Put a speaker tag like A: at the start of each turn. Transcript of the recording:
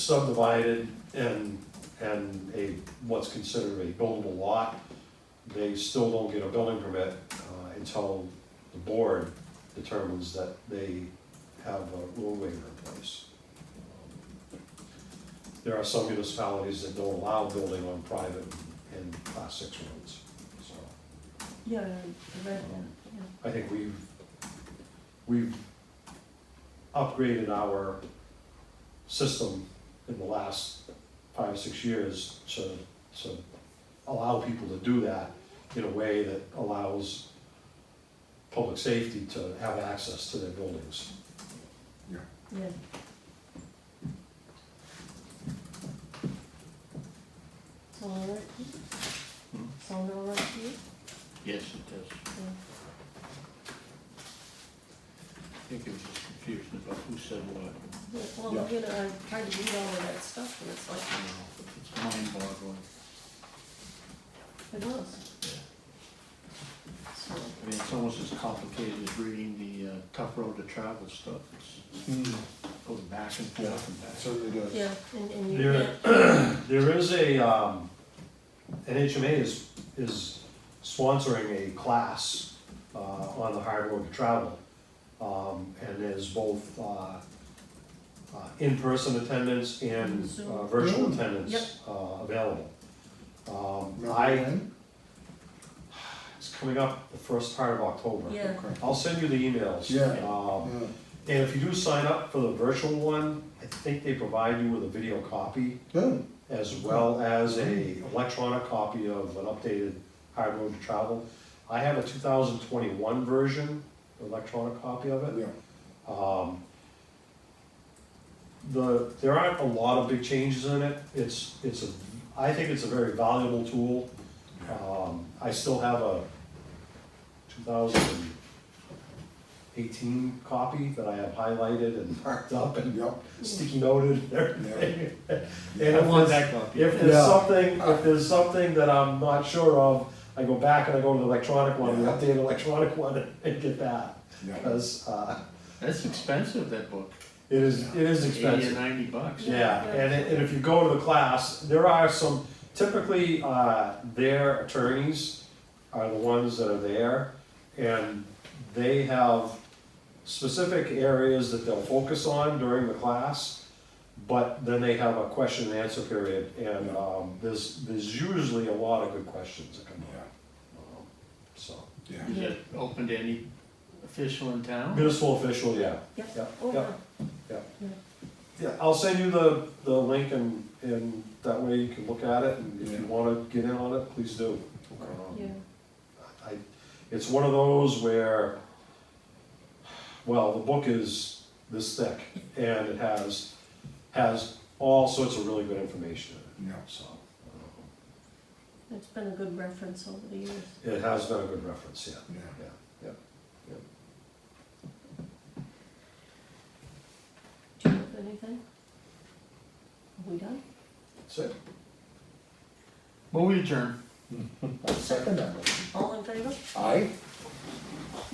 A: subdivided and, and a, what's considered a buildable lot, they still don't get a building permit uh, until the board determines that they have a rule waiver in place. There are some municipalities that don't allow building on private and class six roads, so.
B: Yeah, I I read that, yeah.
A: I think we've, we've upgraded our system in the last five, six years to, to allow people to do that in a way that allows public safety to have access to their buildings.
B: Yeah, Sound all right to you?
C: Hmm?
B: Sound all right to you?
C: Yes, it does.
B: Yeah.
C: I think it was just confusion about who said what.
B: Yeah, Well, you know, I tried to read all of that stuff, and it's
C: you
B: like,
C: know, It's mind boggling.
B: it was. So,
C: I mean, it's almost as complicated as reading the uh, tough road to travel stuff. It's
A: Hmm.
D: Mm,
C: goes back and forth and back.
D: certainly does.
B: yeah, and, and you
A: There,
B: can't,
A: there is a, um, NHMA is, is sponsoring a class, uh, on the hard road to travel. Um, and there's both, uh, uh, in-person attendance and uh,
B: Zoom.
A: virtual
D: Zoom.
B: Yep.
A: attendance, uh, available. Um,
D: Remember
A: I,
D: when?
A: it's coming up the first part of October.
B: yeah,
A: I'll send you the emails.
D: Yeah.
A: Um,
D: Yeah.
A: and if you do sign up for the virtual one, I think they provide you with a video copy.
D: Good.
A: as well as a electronic copy of an updated Hard Road to Travel. I have a two thousand twenty-one version, electronic copy of it.
D: Yeah.
A: Um, The, there aren't a lot of big changes in it, it's, it's a, I think it's a very valuable tool. Um, I still have a two thousand eighteen copy that I have highlighted and marked up and
D: Yep.
A: sticky noted and everything. And if
C: I want
A: it's-
C: that copy.
A: if there's
D: Yeah.
A: something, if there's something that I'm not sure of, I go back and I go to the electronic one, the
D: Yeah.
A: updated electronic one, and get that.
D: Yeah.
A: Because, uh,
C: That's expensive, that book.
A: it is, it is
C: Eighty or
A: expensive.
C: ninety bucks.
A: Yeah, and, it- and if you go to the class, there are some, typically, uh, their attorneys are the ones that are there. And they have specific areas that they'll focus on during the class. But then they have a question and answer period and, um, there's, there's usually a lot of good questions that come
D: Yeah.
A: up. um, So,
D: Yeah.
C: Is it open to any official in town?
A: municipal official, yeah.
B: yep,
A: Yeah,
B: oh,
A: yeah.
B: yeah.
A: Yeah, I'll send you the, the link and, and that way you can look at it, and if you
D: Yeah.
A: wanna get in on it, please do. Um,
B: yeah,
A: I, it's one of those where, well, the book is this thick, and it has, has all sorts of really good information in
D: Yeah.
A: it, so. um,
B: it's been a good reference over the years.
A: It has been a good reference, yeah,
D: Yeah.
A: yeah, yeah.
B: Do you have anything? Are we done?
A: So,
C: Move adjourned.
D: I'll second that. motion.
B: All in favor?
D: Aye.